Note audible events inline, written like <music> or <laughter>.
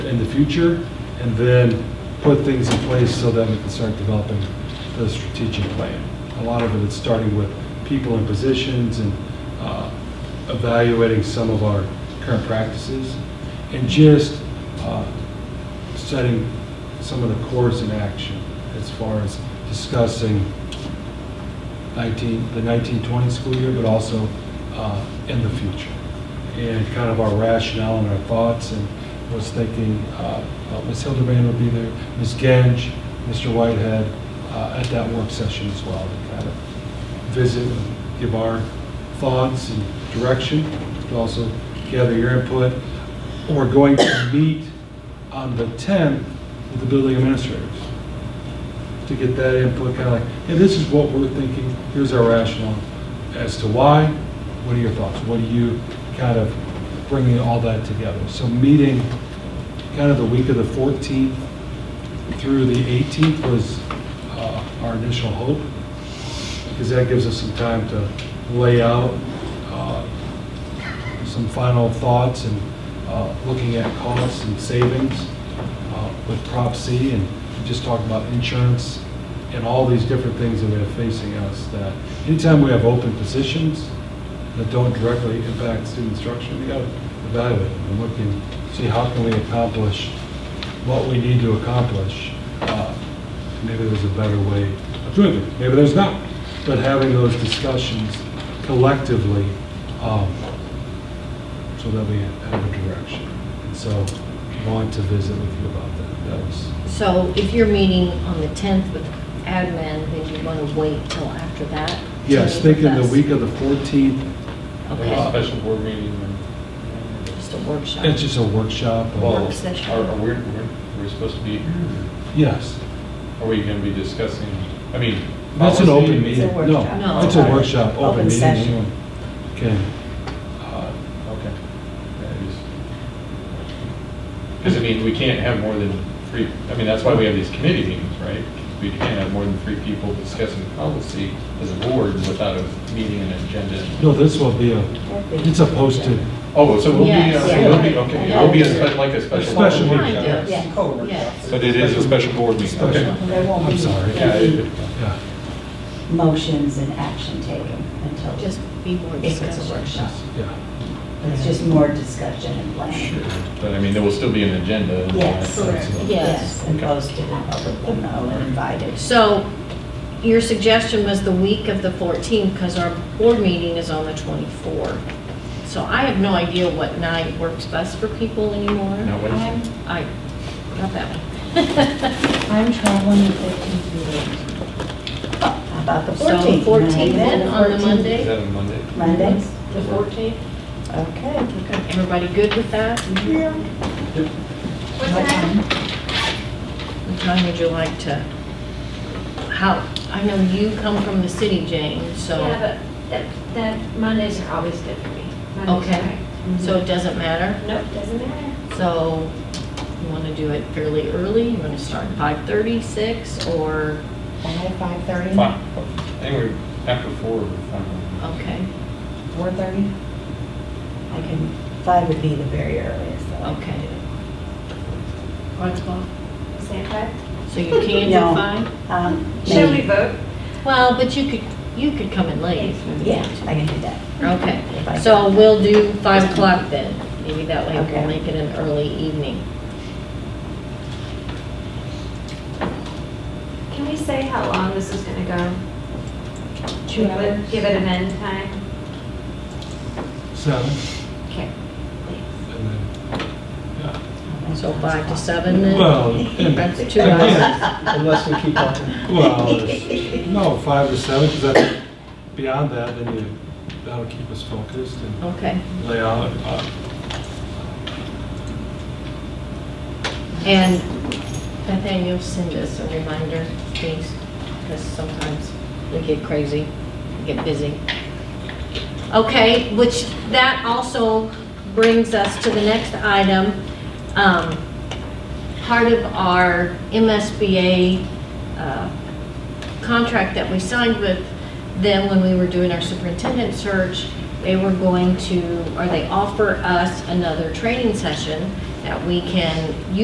in the future, and then put things in place so that we can start developing the strategic plan. A lot of it is starting with people in positions and uh, evaluating some of our current practices, and just uh, setting some of the cores in action as far as discussing 19, the 1920 school year, but also uh, in the future. And kind of our rationale and our thoughts, and was thinking, uh, uh, Ms. Hildebrand will be there, Ms. Genge, Mr. Whitehead, uh, at that work session as well, to kind of visit, and give our thoughts and direction, but also gather your input. We're going to meet on the 10th with the building administrators to get that input, kind of like, hey, this is what we're thinking, here's our rationale as to why, what are your thoughts? What are you kind of bringing all that together? So meeting kind of the week of the 14th through the 18th was uh, our initial hope, because that gives us some time to lay out uh, some final thoughts and uh, looking at costs and savings uh, with Prop C and just talk about insurance and all these different things that we have facing us, that anytime we have open positions that don't directly impact student instruction, we gotta evaluate them and look and see how can we accomplish what we need to accomplish. Uh, Maybe there's a better way of doing it, maybe there's not. But having those discussions collectively um, so that we have a direction. And so, want to visit with you about that. That was, So if you're meeting on the 10th with admin, then you want to wait till after that? to yes, meet with thinking the us? week of the 14th, Okay. uh, Special board meeting. Just a workshop. it's just a workshop. uh, Well, Work session. Are, are we, we're we're supposed to be, Yes, are we going to be discussing, I mean. that's Oh, an policy? open meeting. No, workshop. No, it's a open- workshop, open open meeting. session. Anyone Can, uh, Okay. Because I mean, we can't have more than three, I mean, that's why we have these committee meetings, right? We can't have more than three people discussing policy as a board without a meeting and agenda. no, this will be a, it's a posted, Oh, so we'll be, Yes, so we'll be, yeah. okay, it'll be a spe- like a A special. board special meeting. meeting. Yes, Yeah. yes. But it is a special board meeting. Special. Okay. There won't I'm be sorry. Yeah, any it- yeah. motions and action taken until, Just it's be more If it's a discussion. workshop. yes, Yeah. just more discussion and planning. But I mean, there will still be an agenda. and all that Yes. stuff, so- Yeah. Yes, and posted and public and all invited. So your suggestion was the week of the 14th because our board meeting is on the 24th. So I have no idea what night works best for people anymore. Not Wednesday. I, not that one. <laughs> I'm traveling the 15th through the 18th. How About the So 14th. 14th then Monday. on the 14th. Is Monday? that on Monday? Monday? The 14th? Okay. Okay, everybody good with that? What time? What time would you like to, how, I know you come from the city, Jane, so, Yeah, but that, that Mondays are always good for me. Mondays Okay. are great. so it doesn't matter. Nope, doesn't matter. So you want to do it fairly early? You want to start at 5:30, 6, or, 5, 5:30? Fine. Anyway, after four, we're fine. okay, 4:30? I can, five would be the very earliest. that I can Okay. do. 5 o'clock? Is that right? So you can <laughs> No. do 5? Um, Should we maybe. vote? Well, but you could, you could come in late. if you Yeah, want to. I can do that. If I Okay, can. so we'll do 5 o'clock then. Maybe that way we'll Okay. make it an early evening. Can we say how long this is gonna go? Two Give it- hours? Give it an end time? Seven, Okay. and then, yeah. So 5 to 7 then? Well, and- That's two hours. Unless we keep talking. Well, <laughs> there's- no, five to seven, because beyond that, then you, that'll keep us focused and Okay. lay out, uh, And Nathaniel, send us a reminder, please, because sometimes we get crazy, we get busy. Okay, which, that also brings us to the next item. Um, Part of our MSBA uh, contract that we signed with them when we were doing our superintendent search, they were going to, or they offer us another training session that we can use.